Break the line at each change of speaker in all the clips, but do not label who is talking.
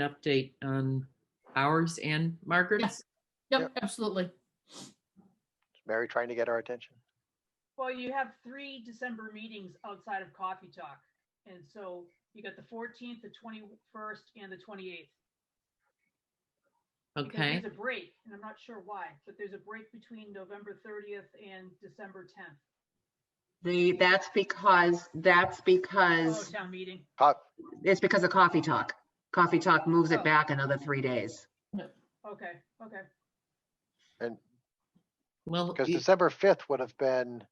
an update on ours and Margaret's?
Yep,
Yep.
absolutely.
Mary trying to get our attention.
Well, you have three December meetings outside of Coffee Talk. And so you got the fourteenth, the twenty-first, and the twenty-eighth.
Okay,
There's a break, and I'm not sure why, but there's a break between November thirtieth and December tenth.
The, that's because, that's
Oh,
because,
town meeting.
Pop,
it's because of Coffee Talk. Coffee Talk moves
Oh.
it back another three days.
Okay, okay.
well,
because
you-
December fifth would have been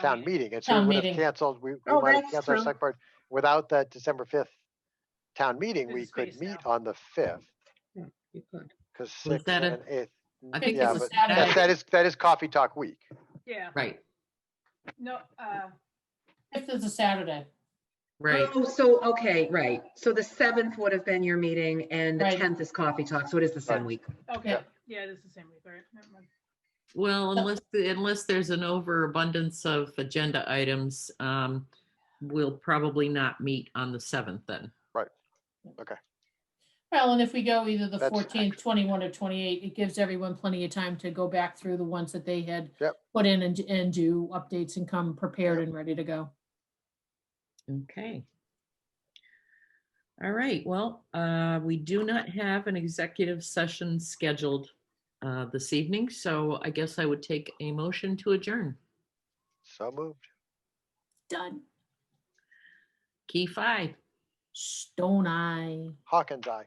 town meeting, and so
Town
we would have
meeting.
canceled, we, we
Oh,
might have
that's
canceled our
true.
select board. Without that December fifth town meeting,
There's a
we could
space
meet
now.
on the fifth, because
Was
sixth
that a-
and eighth.
I think it
yeah,
was
but
that
That that is, that is coffee talk week.
Yeah,
right,
no, uh,
Fifth is a Saturday.
right.
Oh, so, okay, right. So the seventh would have been your meeting and the
Right.
10th is Coffee Talk, so it is the same
Right.
week.
okay, yeah, it is the same week, all right, never mind.
Well, unless, unless there's an overabundance of agenda items, um, we'll probably not meet on the seventh then.
Well, and if we go either the
That's
fourteenth, twenty-one, or twenty-eight, it gives everyone plenty of time to go back through the ones that they had
Yep.
put in and, and do updates and come prepared and ready to go.
Okay. All right, well, uh, we do not have an executive session scheduled uh, this evening, so I guess I would take a motion to adjourn.
So moved.
Done.
Key five.
Stone Eye.
Hawkins, aye.